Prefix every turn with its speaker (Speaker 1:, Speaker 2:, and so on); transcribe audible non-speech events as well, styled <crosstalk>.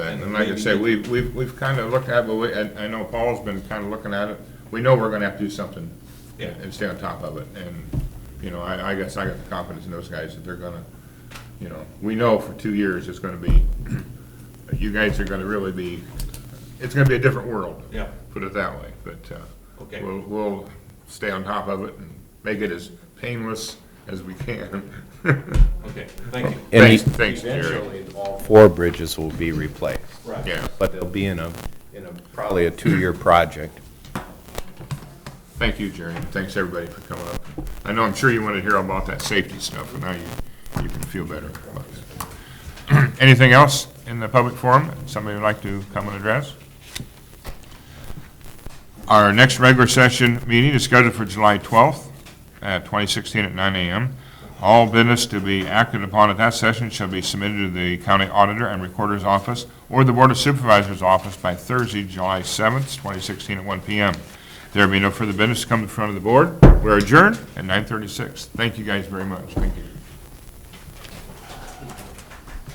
Speaker 1: And and like I say, we've, we've, we've kind of looked at, but we, I, I know Paul's been kind of looking at it. We know we're gonna have to do something.
Speaker 2: Yeah.
Speaker 1: And stay on top of it. And, you know, I, I guess I got the confidence in those guys that they're gonna, you know, we know for two years it's gonna be, you guys are gonna really be, it's gonna be a different world.
Speaker 2: Yeah.
Speaker 1: Put it that way, but, uh,
Speaker 2: Okay.
Speaker 1: we'll, we'll stay on top of it and make it as painless as we can. <laughs>
Speaker 2: Okay, thank you.
Speaker 3: And
Speaker 1: Thanks,
Speaker 3: e-
Speaker 1: thanks, Jerry.
Speaker 3: Eventually, all four bridges will be replaced,
Speaker 2: Right.
Speaker 1: Yeah,
Speaker 3: but they'll be in a, in a, probably a two-year project.
Speaker 1: thank you, Jerry, and thanks, everybody, for coming up. I know, I'm sure you wanted to hear about that safety stuff, and now you, you can feel better about that. <clears throat> Anything else in the public forum that somebody would like to come and address? Our next regular session meeting is scheduled for July 12th, uh, 2016 at 9 a.m. All business to be acted upon at that session shall be submitted to the county auditor and recorder's office or the Board of Supervisors' office by Thursday, July 7th, 2016 at 1 p.m. There will be no further business to come in front of the board. We're adjourned at 9:36. Thank you guys very much. Thank you.